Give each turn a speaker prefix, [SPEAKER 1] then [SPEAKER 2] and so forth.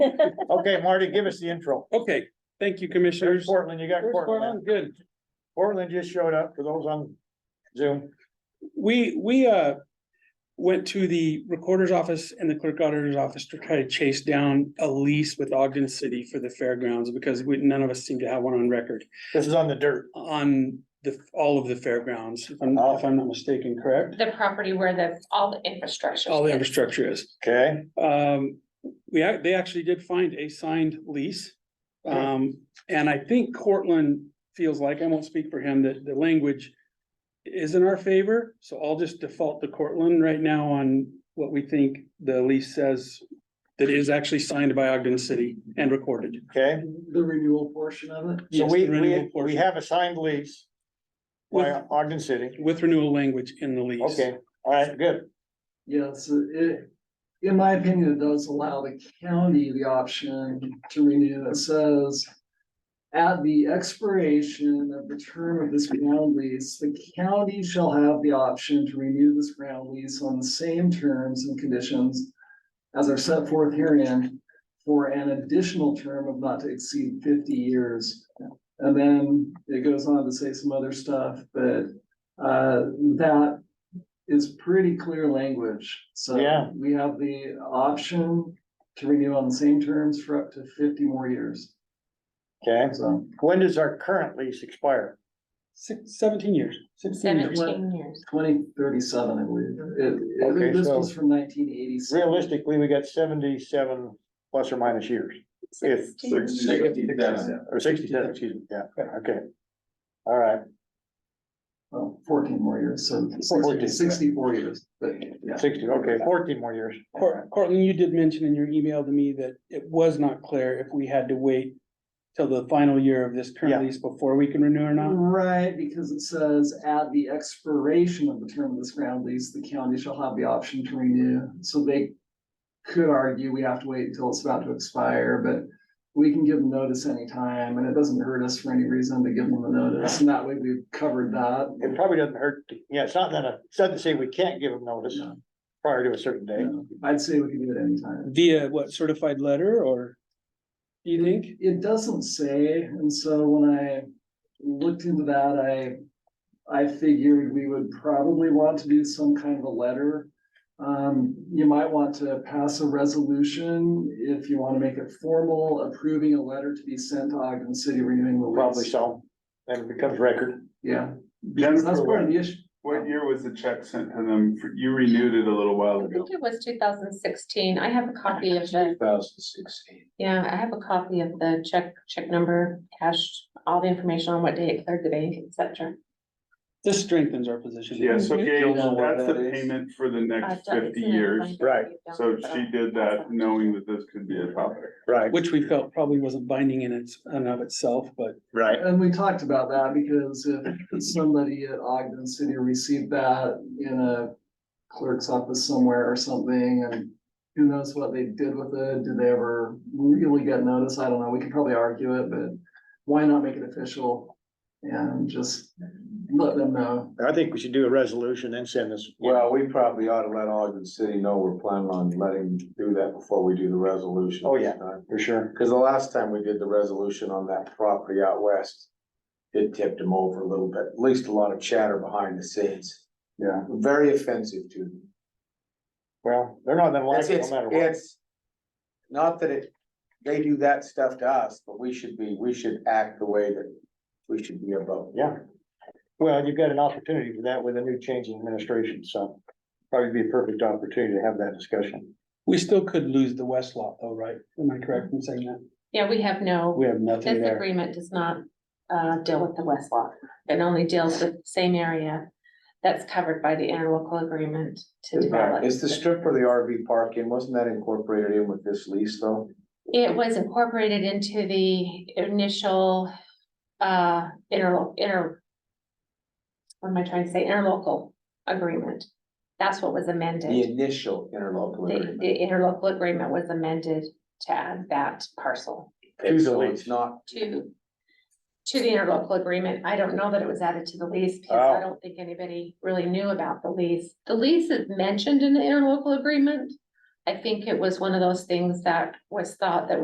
[SPEAKER 1] Okay, Marty, give us the intro.
[SPEAKER 2] Okay, thank you,
[SPEAKER 1] There's
[SPEAKER 2] commissioners.
[SPEAKER 1] Portland, you got
[SPEAKER 2] Where's
[SPEAKER 1] Portland.
[SPEAKER 2] Portland? Good.
[SPEAKER 1] Portland just showed up for those on Zoom.
[SPEAKER 2] We, we, uh, went to the recorder's office and the clerk auditor's office to try to chase down a lease with Ogden City for the fairgrounds because we, none of us seem to have one on record
[SPEAKER 1] This is on the dirt.
[SPEAKER 2] on the, all of the fairgrounds, if I'm, if I'm not mistaken, correct?
[SPEAKER 3] The property where the, all the infrastructure.
[SPEAKER 2] All the infrastructure is.
[SPEAKER 1] Okay,
[SPEAKER 2] Um, we, ac- they actually did find a signed lease. Um, and I think Cortland feels like, I won't speak for him, that the language is in our favor, so I'll just default to Cortland right now on what we think the lease says that is actually signed by Ogden City and recorded.
[SPEAKER 1] okay.
[SPEAKER 4] The renewal portion of it?
[SPEAKER 1] So
[SPEAKER 2] Yes,
[SPEAKER 1] we,
[SPEAKER 2] the renewal
[SPEAKER 1] we, we
[SPEAKER 2] portion.
[SPEAKER 1] have a signed lease by
[SPEAKER 2] With,
[SPEAKER 1] Ogden City.
[SPEAKER 2] with renewal language in the lease.
[SPEAKER 1] Okay, all right, good.
[SPEAKER 4] Yes, it, in my opinion, it does allow the county the option to renew. It says. At the expiration of the term of this ground lease, the county shall have the option to renew this ground lease on the same terms and conditions. As are set forth herein for an additional term of not to exceed fifty years. And then it goes on to say some other stuff, but uh, that is pretty clear language. So
[SPEAKER 1] Yeah.
[SPEAKER 4] we have the option to renew on the same terms for up to fifty more years.
[SPEAKER 1] Okay,
[SPEAKER 4] So
[SPEAKER 1] when does our current lease expire?
[SPEAKER 2] Six, seventeen years, sixteen years.
[SPEAKER 3] Seventeen years.
[SPEAKER 4] twenty thirty-seven, I believe. It-
[SPEAKER 1] Okay,
[SPEAKER 4] It, this
[SPEAKER 1] so-
[SPEAKER 4] was from nineteen eighty-six.
[SPEAKER 1] Realistically, we got seventy-seven plus or minus years, If- or sixty-seven, excuse me, yeah, okay. All right,
[SPEAKER 4] Well, fourteen more years, so
[SPEAKER 1] 14, yeah.
[SPEAKER 4] 60 64 years, but yeah.
[SPEAKER 1] sixty, okay, fourteen more years.
[SPEAKER 2] Cor- Cortland, you did mention in your email to me that it was not clear if we had to wait till the final year of this
[SPEAKER 1] Yeah.
[SPEAKER 2] current lease before we can renew or not.
[SPEAKER 4] Right, because it says at the expiration of the term of this ground lease, the county shall have the option to renew. So they could argue we have to wait until it's about to expire, but we can give them notice anytime and it doesn't hurt us for any reason to give them the notice. And that way we've covered
[SPEAKER 1] It
[SPEAKER 4] that.
[SPEAKER 1] probably doesn't hurt, to- yeah, it's not gonna, it's not to say we can't give them notice
[SPEAKER 4] No,
[SPEAKER 1] prior to a certain day.
[SPEAKER 4] no. I'd say we can do it anytime.
[SPEAKER 2] Via what certified letter or? Do you think?
[SPEAKER 4] It doesn't say, and so when I looked into that, I. I figured we would probably want to do some kind of a letter. Um, you might want to pass a resolution if you want to make it formal, approving a letter to be sent to Ogden City renewing the
[SPEAKER 1] Probably
[SPEAKER 4] lease.
[SPEAKER 1] so, and it becomes record.
[SPEAKER 4] Yeah, because that's
[SPEAKER 5] Jennifer,
[SPEAKER 4] part of
[SPEAKER 5] what-
[SPEAKER 4] the issue.
[SPEAKER 5] what year was the check sent to them? For- You renewed it a little while
[SPEAKER 3] I
[SPEAKER 5] ago.
[SPEAKER 3] think it was two thousand sixteen. I have a copy of the,
[SPEAKER 6] Two thousand sixteen.
[SPEAKER 3] yeah, I have a copy of the check, check number, cash, all the information on what day it cleared the bank, et cetera.
[SPEAKER 2] This strengthens our position.
[SPEAKER 5] Yeah, so Gail,
[SPEAKER 6] Don't know what
[SPEAKER 5] that's the
[SPEAKER 6] that is.
[SPEAKER 5] payment for the
[SPEAKER 3] I've
[SPEAKER 5] next
[SPEAKER 3] done-
[SPEAKER 5] fifty
[SPEAKER 3] it's in a
[SPEAKER 5] years.
[SPEAKER 3] binder
[SPEAKER 1] Right,
[SPEAKER 3] that you've
[SPEAKER 5] So
[SPEAKER 3] done, but
[SPEAKER 5] she
[SPEAKER 3] I'll-
[SPEAKER 5] did that knowing that this could be a topic.
[SPEAKER 1] Right,
[SPEAKER 2] Which we felt probably wasn't binding in its, in and of itself, but
[SPEAKER 1] right.
[SPEAKER 4] And we talked about that because if somebody at Ogden City received that in a clerk's office somewhere or something and who knows what they did with it? Did they ever really get notice? I don't know. We could probably argue it, but why not make it official? And just let them know.
[SPEAKER 1] I think we should do a resolution and send this.
[SPEAKER 6] Well, we probably ought to let Ogden City know we're planning on letting them do that before we do the resolution.
[SPEAKER 1] Oh,
[SPEAKER 6] this
[SPEAKER 1] yeah.
[SPEAKER 6] time.
[SPEAKER 1] For sure.
[SPEAKER 6] Cause the last time we did the resolution on that property out west, it tipped them over a little bit, at least a lot of chatter behind the scenes.
[SPEAKER 1] Yeah.
[SPEAKER 6] Very offensive to them.
[SPEAKER 1] Well, they're not gonna like
[SPEAKER 6] It's,
[SPEAKER 1] it no
[SPEAKER 6] it's,
[SPEAKER 1] matter what.
[SPEAKER 6] it's, not that it, they do that stuff to us, but we should be, we should act the way that we should be about.
[SPEAKER 1] Yeah. Well, you've got an opportunity for that with a new change in administration, so probably be a perfect opportunity to have that discussion.
[SPEAKER 2] we still could lose the west lot though, right? Am I correct in saying that?
[SPEAKER 3] Yeah, we have no,
[SPEAKER 2] We have nothing
[SPEAKER 3] this
[SPEAKER 2] there.
[SPEAKER 3] agreement does not uh deal with the West Lot. It only deals with the same area that's covered by the interlocal agreement to develop.
[SPEAKER 6] Is the strip for the RV park in, wasn't that incorporated in with this lease though?
[SPEAKER 3] It was incorporated into the initial, uh, inter, inter. What am I trying to say? Interlocal agreement. That's what was
[SPEAKER 6] The
[SPEAKER 3] amended.
[SPEAKER 6] initial interlocal
[SPEAKER 3] The,
[SPEAKER 6] agreement.
[SPEAKER 3] the interlocal agreement was amended to add that parcel
[SPEAKER 6] Okay,
[SPEAKER 1] To the
[SPEAKER 6] so
[SPEAKER 1] lease.
[SPEAKER 6] It's not,
[SPEAKER 3] to. To the interlocal agreement. I don't know that it was added to the lease because I don't think anybody really knew about the lease. The lease is mentioned in the interlocal agreement. I think it was one of those things that was thought that